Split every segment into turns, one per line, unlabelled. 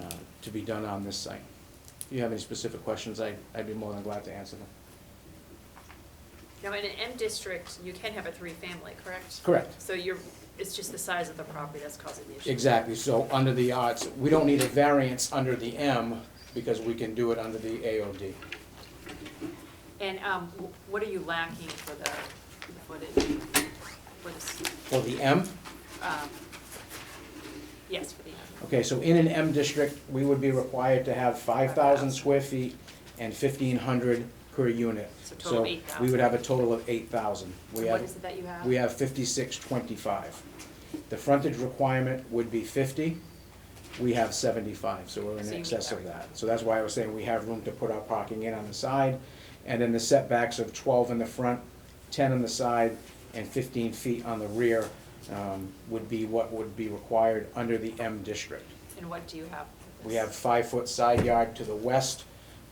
uh, to be done on this site. If you have any specific questions, I, I'd be more than glad to answer them.
Now, in an M district, you can have a three-family, correct?
Correct.
So you're, it's just the size of the property that's causing the issue.
Exactly, so under the odds, we don't need a variance under the M because we can do it under the AOD.
And um, wh- what are you lacking for the, for the, for this,
For the M,
um, yes, for the,
okay, so in an M district, we would be required to have five thousand square feet and fifteen hundred per unit.
So total of
we would
8,000.
have a total of eight thousand. We
what
have,
is it that you have?
we have fifty-six twenty-five. The frontage requirement would be fifty, we have seventy-five, so we're
So
in
you meet
excess of
everything.
that. So that's why I was saying we have room to put our parking in on the side, and then the setbacks of twelve in the front, ten on the side, and fifteen feet on the rear, um, would be what would be required under the M district.
And what do you have? for
We
this?
have five-foot side yard to the west.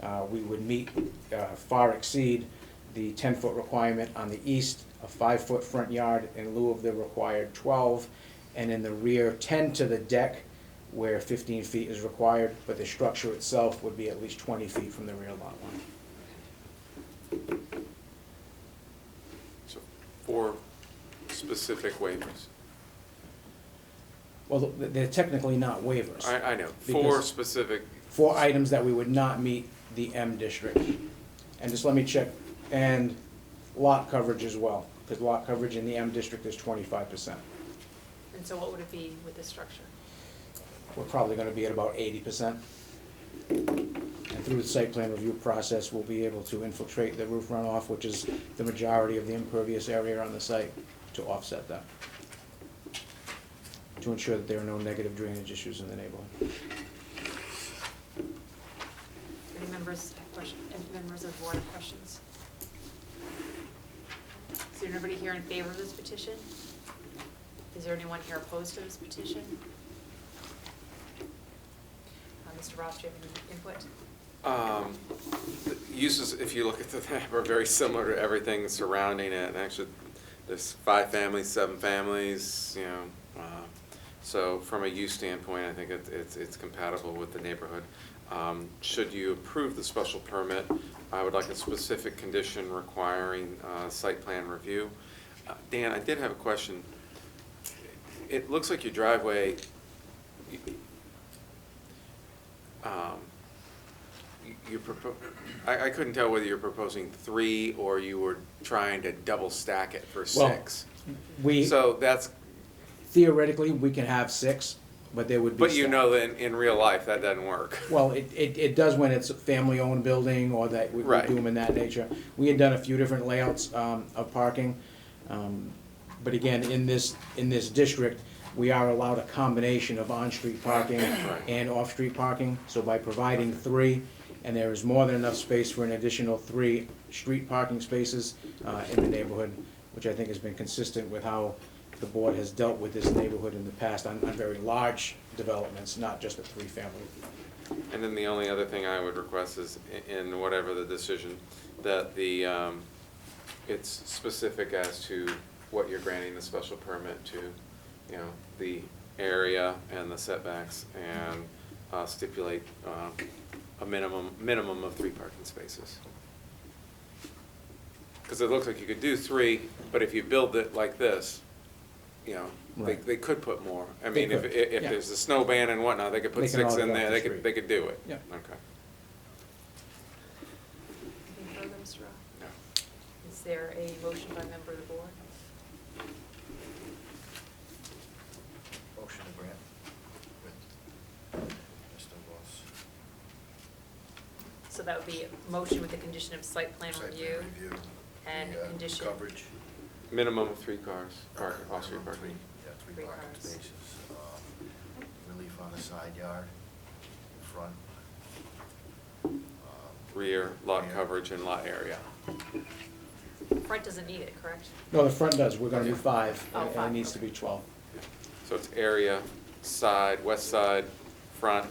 Uh, We would meet, uh, far exceed the ten-foot requirement on the east, a five-foot front yard in lieu of the required twelve, and in the rear, ten to the deck where fifteen feet is required, but the structure itself would be at least twenty feet from the rear lot line.
So four specific waivers.
Well, th- they're technically not waivers.
I, I know, four
Because-
specific,
four items that we would not meet the M district. And just let me check, and lot coverage as well, because lot coverage in the M district is twenty-five percent.
And so what would it be with this structure?
We're probably gonna be at about eighty percent. And through the site plan review process, we'll be able to infiltrate the roof runoff, which is the majority of the impervious area on the site, to offset that. To ensure that there are no negative drainage issues in the neighborhood.
Any members have questions, any members of the board have questions? Is there anybody here in favor of this petition? Is there anyone here opposed to this petition? Uh, Mr. Ross, do you have any input?
um, the uses, if you look at the map, are very similar to everything surrounding it. And actually, there's five families, seven families, you know. uh, So from a use standpoint, I think it- it's, it's compatible with the neighborhood. Um, Should you approve the special permit, I would like a specific condition requiring uh, site plan review. Uh, Dan, I did have a question. It looks like your driveway, you- um, you- you propo I, I couldn't tell whether you're proposing three or you were trying to double stack it for
Well,
six.
We,
So that's,
theoretically, we can have six, but there would be.
but you
staff.
know that in, in real life, that doesn't work.
Well, it, it, it does when it's a family-owned building or that we we
Right.
do them in that nature. We had done a few different layouts, um, of parking. Um, But again, in this, in this district, we are allowed a combination of on-street parking and off-street parking. So by providing three, and there is more than enough space for an additional three street parking spaces, uh, in the neighborhood, which I think has been consistent with how the board has dealt with this neighborhood in the past on, on very large developments, not just a three-family
And then the only other thing I would request is i- in whatever the decision, that the, um, it's specific as to what you're granting the special permit to, you know, the area and the setbacks and uh, stipulate, um, a minimum, minimum of three parking spaces. Cause it looks like you could do three, but if you build it like this, you know, they,
Right.
they could put more. I
They
mean, if,
could,
if
yeah.
if there's a snow ban and whatnot, they could
They
put
can
six
all
in
go up
there,
to
they
three.
could, they could do it.
Yeah.
Okay.
Anything further, Mr. Ross?
No.
Is there a motion by member of the board?
Motion to grant with Mr. Ross.
So that would be a motion with the condition of site plan
Site plan
review.
review,
and
the, uh,
condition.
Coverage.
Minimum of three cars, park, off-street
Minimum
parking.
three- Yeah,
Three
three parking
cars.
spaces. um, Relief on the side yard, in front. um,
Rear, lot
rear.
coverage and lot area.
Front doesn't need it, correct?
No, the front does, we're gonna do five,
Oh,
and it
five,
needs to
okay.
be twelve.
So it's area, side, west side, front,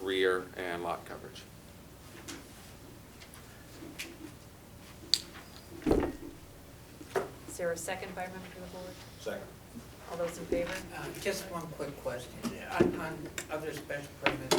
rear, and lot coverage.
Is there a second by member of the board?
Second.
All those in favor?
Uh, Just one quick question. On on other special permits,